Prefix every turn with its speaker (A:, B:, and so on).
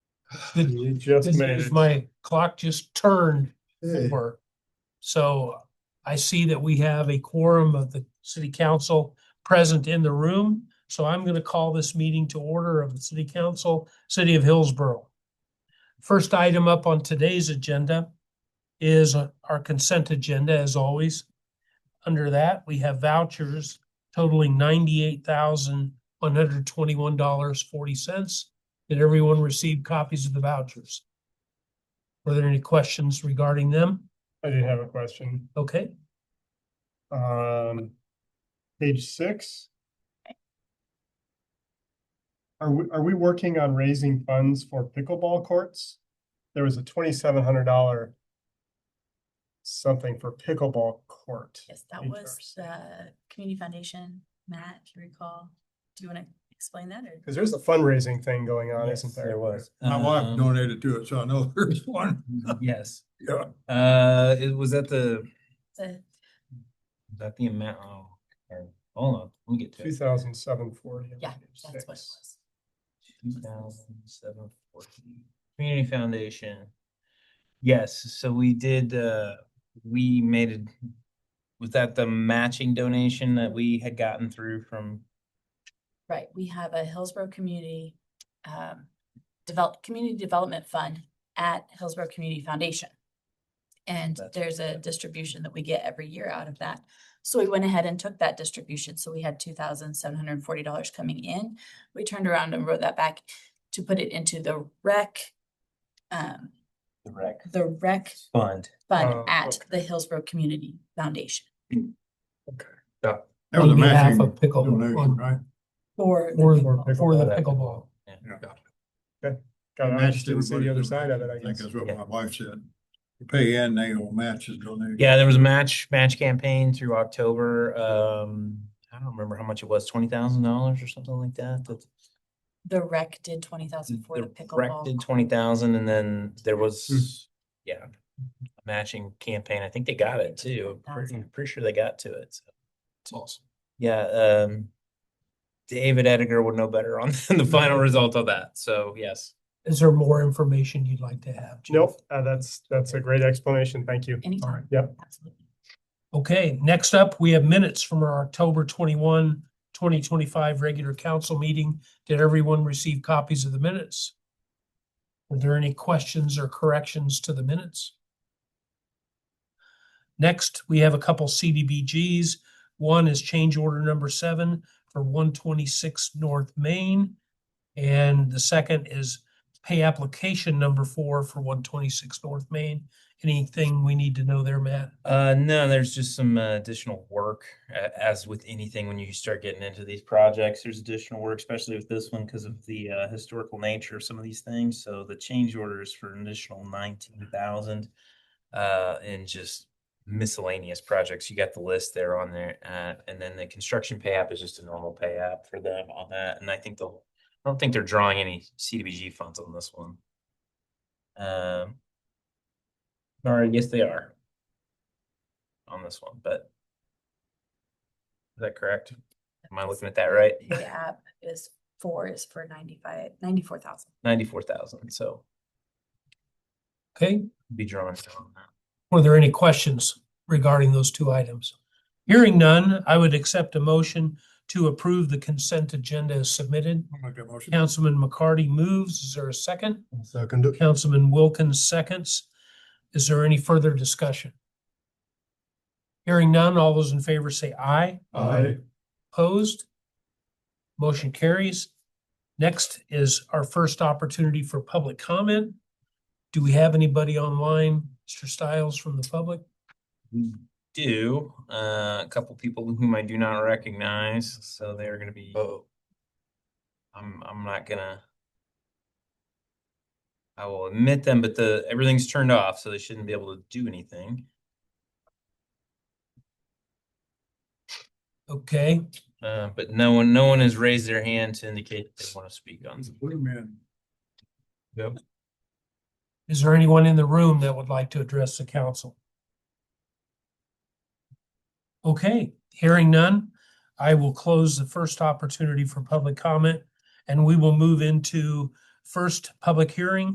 A: The-
B: You just
A: this-
B: made it.
A: My clock just turned
C: Hey,
A: over. So I see that we have a quorum of the city council present in the room. So I'm going to call this meeting to order of the city council, city of Hillsborough. First item up on today's agenda is our consent agenda, as always. Under that, we have vouchers totaling ninety-eight thousand, one hundred twenty-one dollars, forty cents. Did everyone receive copies of the vouchers? Were there any questions regarding them?
B: I did have a question.
A: Okay,
B: Um, page six. Are we, are we working on raising funds for pickleball courts? There was a twenty-seven hundred dollar something for pickleball court.
D: Yes, that
B: in
D: was the Community Foundation, Matt, if you recall. Do you want to explain that or?
B: Because there's a fundraising thing going on,
E: Yes,
B: isn't there?
E: There was.
C: My
B: Uh-huh.
C: wife
E: Um,
C: donated to it, so I know there's one.
E: Yes,
C: Yeah,
E: uh, it was at the,
D: the-
E: was that the amount, oh, or, hold on, let me get to
B: Two
E: it.
B: thousand seven forty.
D: Yeah, that's what it was.
E: Two thousand seven fourteen, Community Foundation. Yes, so we did, uh, we made it, was that the matching donation that we had gotten through from?
D: Right, we have a Hillsborough Community um develop, Community Development Fund at Hillsborough Community Foundation. And
E: That's
D: there's
E: what
D: a
E: that is.
D: distribution that we get every year out of that. So we went ahead and took that distribution. So we had two thousand seven hundred and forty dollars coming in. We turned around and wrote that back to put it into the rec um
E: The rec.
D: the rec
E: Fund.
B: Oh,
D: fund at
B: okay.
D: the Hillsborough Community Foundation
C: that was a
A: On behalf
C: matching
A: of pickle-
C: donation,
A: on-
C: right?
D: for. the
A: for,
D: pickleball.
A: for the
E: Pickleball.
A: pickleball.
C: Yeah.
B: God, I
C: Matched
B: just didn't see the
C: everybody's
B: other side of it, I
C: donation. I think
B: guess.
C: that's what
E: Yeah.
C: my wife said. You Pay in, they will match his donation.
E: Yeah, there was a match, match campaign through October, um, I don't remember how much it was, twenty thousand dollars or something like that, that
D: The rec did twenty thousand for the pickleball.
E: Corrected twenty thousand and then there was, yeah, a matching campaign. I think they got it too. I'm pretty,
D: 10,000.
E: pretty sure they got to it. so.
A: It's awesome.
E: Yeah, um, David Ediger would know better on the
D: Mm-hmm.
E: final result of that. So yes.
A: Is there more information you'd like to have? Jeff?
B: Nope, uh, that's, that's a great explanation. Thank you.
D: Anytime.
B: Yep.
D: Absolutely.
A: Okay, next up, we have minutes from our October 21, 2025 regular council meeting. Did everyone receive copies of the minutes? Were there any questions or corrections to the minutes? Next, we have a couple CDBGs. One is change order number seven for one twenty-six North Main. And the second is pay application number four for one twenty-six North Main. Anything we need to know there, Matt?
E: Uh, no, there's just some uh, additional work, a- as with anything, when you start getting into these projects, there's additional work, especially with this one because of the uh, historical nature of some of these things. So the change order is for an additional nineteen thousand, uh, and just miscellaneous projects. You got the list there on there, uh, and then the construction pay app is just a normal pay app for them on that. And I think they'll, I don't think they're drawing any CDBG funds on this one. Um, or yes, they are on this one, but is that correct? Am I looking at that right?
D: The app is four is for ninety-five, ninety-four thousand.
E: Ninety-four thousand, so
A: Okay,
E: be drawn down on that.
A: Were there any questions regarding those two items? Hearing none, I would accept a motion to approve the consent agenda as submitted.
C: I'll make that motion.
A: Councilman McCarty moves. Is there a second?
C: Second. it.
A: Councilman Wilkins seconds. Is there any further discussion? Hearing none, all those in favor say aye.
C: Aye.
A: Opposed? Motion carries. Next is our first opportunity for public comment. Do we have anybody online, Mr. Stiles, from the public?
E: We do, uh, a couple people whom I do not recognize, so they're gonna be. Oh. I'm, I'm not gonna. I will admit them, but the, everything's turned off, so they shouldn't be able to do anything.
A: Okay,
E: Uh, but no one, no one has raised their hand to indicate they want to speak on. something.
C: Blue man.
E: Yep.
A: is there anyone in the room that would like to address the council? Okay, hearing none, I will close the first opportunity for public comment and we will move into first public hearing